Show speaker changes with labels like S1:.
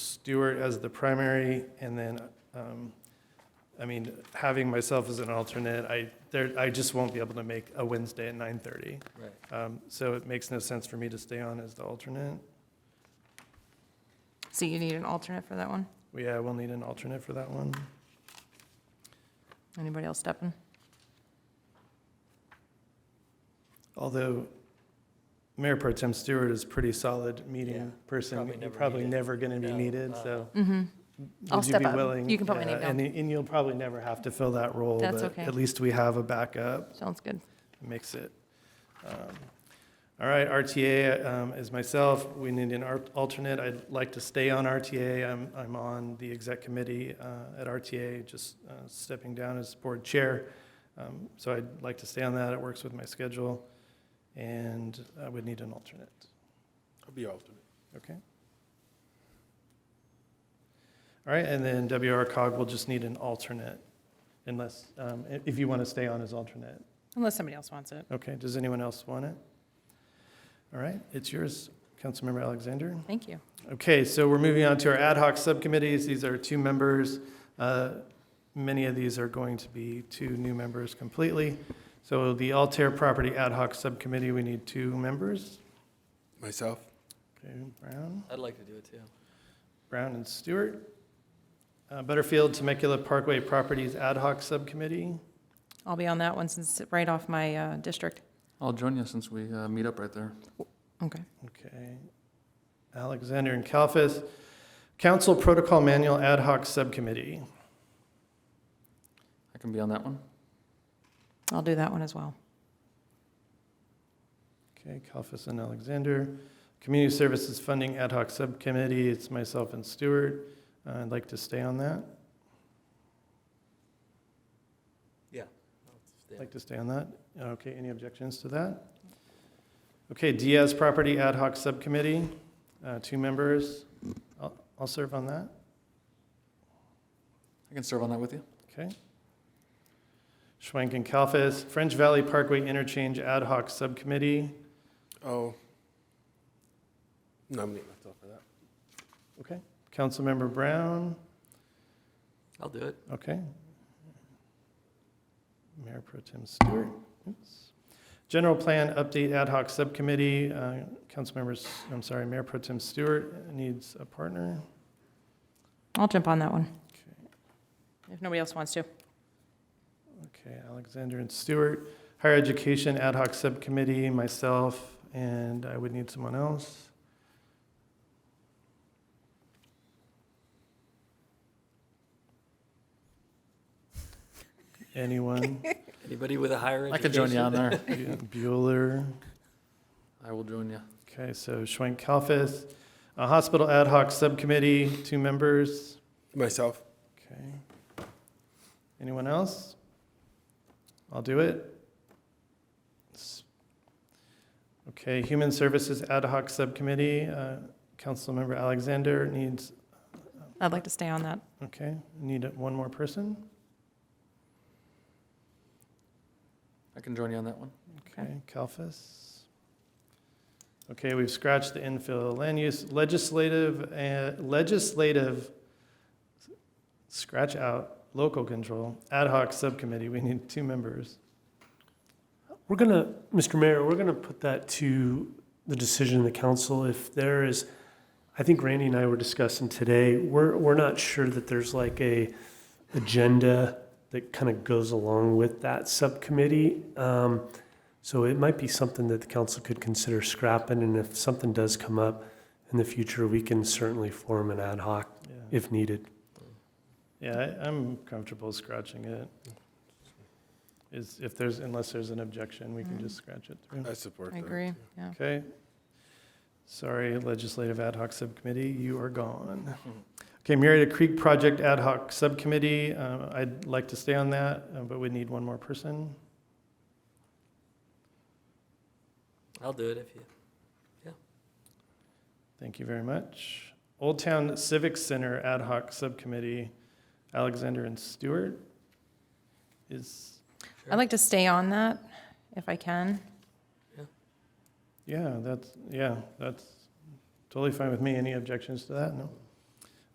S1: Stewart as the primary, and then, um, I mean, having myself as an alternate, I, there, I just won't be able to make a Wednesday at nine thirty.
S2: Right.
S1: Um, so it makes no sense for me to stay on as the alternate.
S3: So you need an alternate for that one?
S1: We, uh, will need an alternate for that one.
S3: Anybody else stepping?
S1: Although Mayor Pro Tem Stewart is a pretty solid meeting
S2: Yeah,
S1: person,
S2: probably
S1: you're
S2: never
S1: probably
S2: needed.
S1: never going to be
S2: No,
S1: needed,
S4: Uh,
S1: so.
S3: Mm-hmm. I'll
S1: would you
S3: step
S1: be
S3: up.
S1: willing-
S3: You can put my name
S1: yeah, and- And you'll probably never have to fill that role.
S3: That's
S1: but
S3: okay.
S1: At least we have a backup.
S3: Sounds good.
S1: Makes it. um, All right, RTA um, is myself. We need an art- alternate. I'd like to stay on RTA. I'm, I'm on the exec committee uh, at RTA, just uh, stepping down as board chair. Um, So I'd like to stay on that. It works with my schedule. And I would need an alternate.
S5: I'll be alternate.
S1: Okay. All right, and then WR cog will just need an alternate unless, um, i- if you want to stay on as alternate.
S3: Unless somebody else wants it.
S1: Okay, does anyone else want it? All right, it's yours, Councilmember Alexander.
S3: Thank you.
S1: Okay, so we're moving on to our ad hoc subcommittees. These are two members. Uh, Many of these are going to be two new members completely. So the Altair Property Ad Hoc Subcommittee, we need two members.
S5: Myself?
S1: Okay, Brown.
S2: I'd like to do it too.
S1: Brown and Stewart. Uh, Butterfield Temecula Parkway Properties Ad Hoc Subcommittee.
S3: I'll be on that one since it's right off my uh, district.
S4: I'll join you since we uh, meet up right there.
S3: Okay.
S1: Okay. Alexander and Kalfas. Council Protocol Manual Ad Hoc Subcommittee.
S4: I can be on that one.
S3: I'll do that one as well.
S1: Okay, Kalfas and Alexander. Community Services Funding Ad Hoc Subcommittee, it's myself and Stewart. Uh, I'd like to stay on that.
S2: Yeah. I'll stay on.
S1: Like to stay on that? Okay, any objections to that? Okay, Diaz Property Ad Hoc Subcommittee, uh, two members. I'll, I'll serve on that,
S4: I can serve on that with you.
S1: okay? Schwank and Kalfas, French Valley Parkway Interchange Ad Hoc Subcommittee,
S5: Oh. Nominate myself for that.
S1: okay? Councilmember Brown,
S2: I'll do it.
S1: okay? Mayor Pro Tem Stewart, oops. General Plan Update Ad Hoc Subcommittee, uh, Councilmembers, I'm sorry, Mayor Pro Tem Stewart needs a partner.
S3: I'll jump on that one
S1: Okay.
S3: if nobody else wants to.
S1: Okay, Alexander and Stewart, Higher Education Ad Hoc Subcommittee, myself, and I would need someone else. Anyone?
S2: Anybody with a higher education?
S4: I could join you on there.
S1: Bueller.
S4: I will join you.
S1: Okay, so Schwank Kalfas, Uh, Hospital Ad Hoc Subcommittee, two members.
S5: Myself?
S1: Okay. Anyone else? I'll do it. S- Okay, Human Services Ad Hoc Subcommittee, uh, Councilmember Alexander needs,
S3: I'd like to stay on that.
S1: okay, need one more person?
S4: I can join you on that one.
S1: Okay, Kalfas. Okay, we've scratched the infill land use legislative and legislative, scratch out local control, ad hoc subcommittee, we need two members.
S6: We're gonna, Mr. Mayor, we're gonna put that to the decision of the council. If there is, I think Randy and I were discussing today, we're, we're not sure that there's like a agenda that kind of goes along with that subcommittee. Um, so it might be something that the council could consider scrapping, and if something does come up in the future, we can certainly form an ad hoc
S1: Yeah.
S6: if needed.
S1: Yeah, I- I'm comfortable scratching it. Is, if there's, unless there's an objection, we can just scratch it through.
S5: I support
S3: I
S5: that.
S3: agree.
S5: too.
S3: Yeah.
S1: Okay. Sorry, Legislative Ad Hoc Subcommittee, you are gone. Okay, Marietta Creek Project Ad Hoc Subcommittee, uh, I'd like to stay on that, uh, but we need one more person.
S2: I'll do it if you.
S1: Thank you very much. Old Town Civic Center Ad Hoc Subcommittee, Alexander and Stewart is,
S3: I'd like to stay on that if I can.
S1: yeah, that's, yeah, that's totally fine with me. Any objections to that? No?